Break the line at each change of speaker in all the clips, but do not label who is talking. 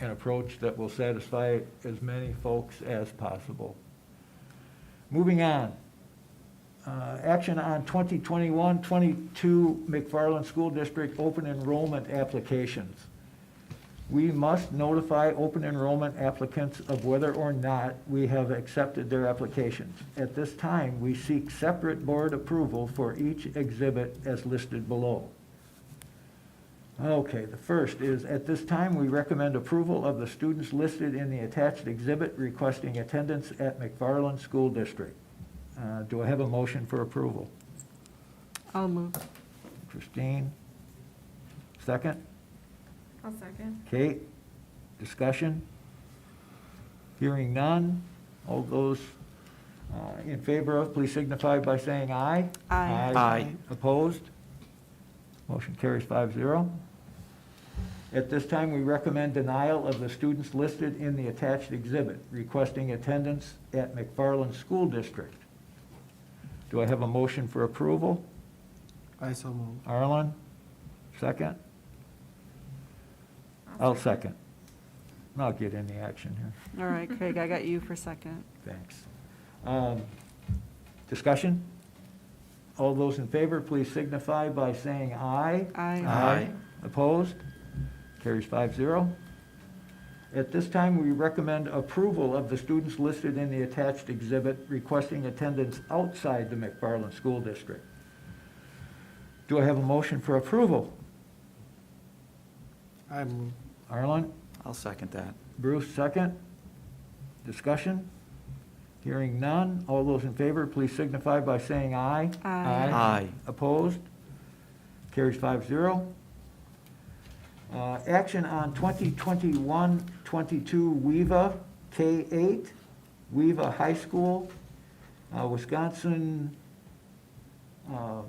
an approach that will satisfy as many folks as possible. Moving on. Uh, Action on 2021-22 McFarland School District open enrollment applications. We must notify open enrollment applicants of whether or not we have accepted their applications. At this time, we seek separate board approval for each exhibit as listed below. Okay, the first is, at this time, we recommend approval of the students listed in the attached exhibit requesting attendance at McFarland School District. Uh, Do I have a motion for approval?
I'll move.
Christine? Second?
I'll second.
Kate? Discussion? Hearing none. All those uh, in favor of, please signify by saying aye.
Aye. Aye.
Opposed? Motion carries five zero. At this time, we recommend denial of the students listed in the attached exhibit requesting attendance at McFarland School District. Do I have a motion for approval?
I so move.
Arlen, second? I'll second. I'll get any action here.
All right, Craig, I got you for second.
Thanks. Um, Discussion? All those in favor, please signify by saying aye.
Aye.
Aye.
Opposed? Carries five zero. At this time, we recommend approval of the students listed in the attached exhibit requesting attendance outside the McFarland School District. Do I have a motion for approval?
I move.
Arlen?
I'll second that.
Bruce, second. Discussion? Hearing none. All those in favor, please signify by saying aye.
Aye.
Aye.
Opposed? Carries five zero. Uh, Action on 2021-22 WEVA K-8, WEVA High School, uh, Wisconsin, um,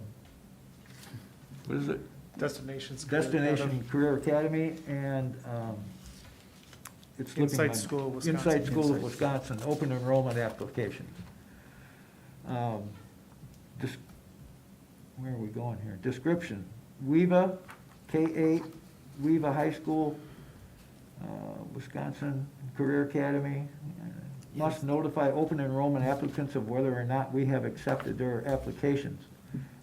what is it?
Destinations.
Destination Career Academy and um, it's looking
Insight
like-
School of Wisconsin.
Insight School of
Insight.
Wisconsin, open enrollment applications. Um, dis- Where are we going here? Description, WEVA, K-8, WEVA High School, uh, Wisconsin Career Academy. uh, Must notify open enrollment applicants of whether or not we have accepted their applications.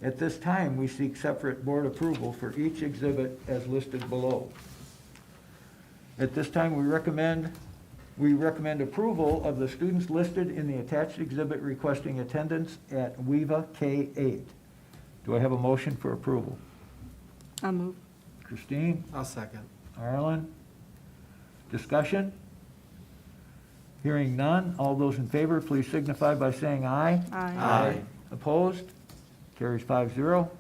At this time, we seek separate board approval for each exhibit as listed below. At this time, we recommend, we recommend approval of the students listed in the attached exhibit requesting attendance at WEVA K-8. Do I have a motion for approval?
I'll move.
Christine?
I'll second.
Ireland. Discussion? Hearing none. All those in favor, please signify by saying aye.
Aye.
Opposed? Carries five zero.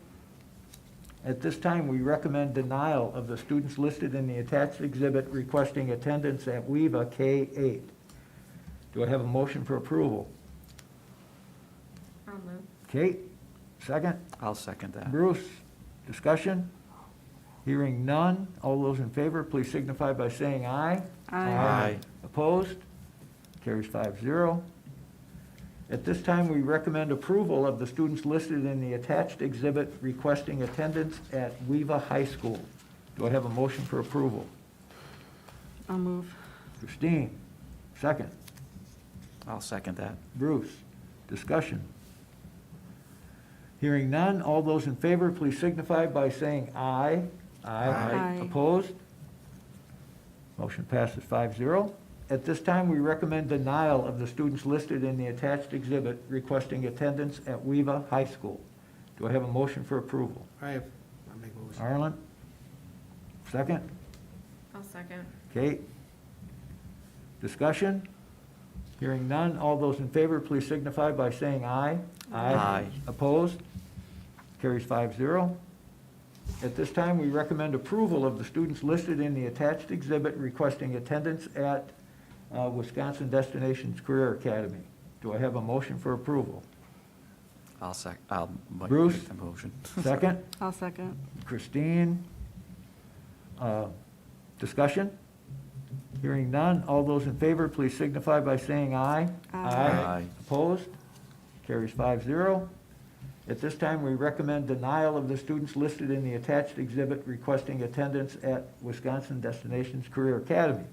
At this time, we recommend denial of the students listed in the attached exhibit requesting attendance at WEVA K-8. Do I have a motion for approval?
I'll move.
Kate, second?
I'll second that.
Bruce, discussion? Hearing none. All those in favor, please signify by saying aye.
Aye.
Opposed? Carries five zero. At this time, we recommend approval of the students listed in the attached exhibit requesting attendance at Weva High School. Do I have a motion for approval?
I'll move.
Christine, second.
I'll second that.
Bruce, discussion. Hearing none, all those in favor, please signify by saying aye.
Aye.
Opposed? Motion passes 5-0. At this time, we recommend denial of the students listed in the attached exhibit requesting attendance at Weva High School. Do I have a motion for approval?
I have, I make a motion.
Arlen? Second?
I'll second.
Kate? Discussion? Hearing none, all those in favor, please signify by saying aye.
Aye.
Opposed? Carries five zero. At this time, we recommend approval of the students listed in the attached exhibit requesting attendance at uh, Wisconsin Destinations Career Academy. Do I have a motion for approval?
I'll sec, I'll ma-
Bruce?
make the motion.
Second?
I'll second.
Christine. Uh, Discussion? Hearing none. All those in favor, please signify by saying aye.
Aye.
Aye.
Opposed? Carries five zero. At this time, we recommend denial of the students listed in the attached exhibit requesting attendance at Wisconsin Destinations Career Academy.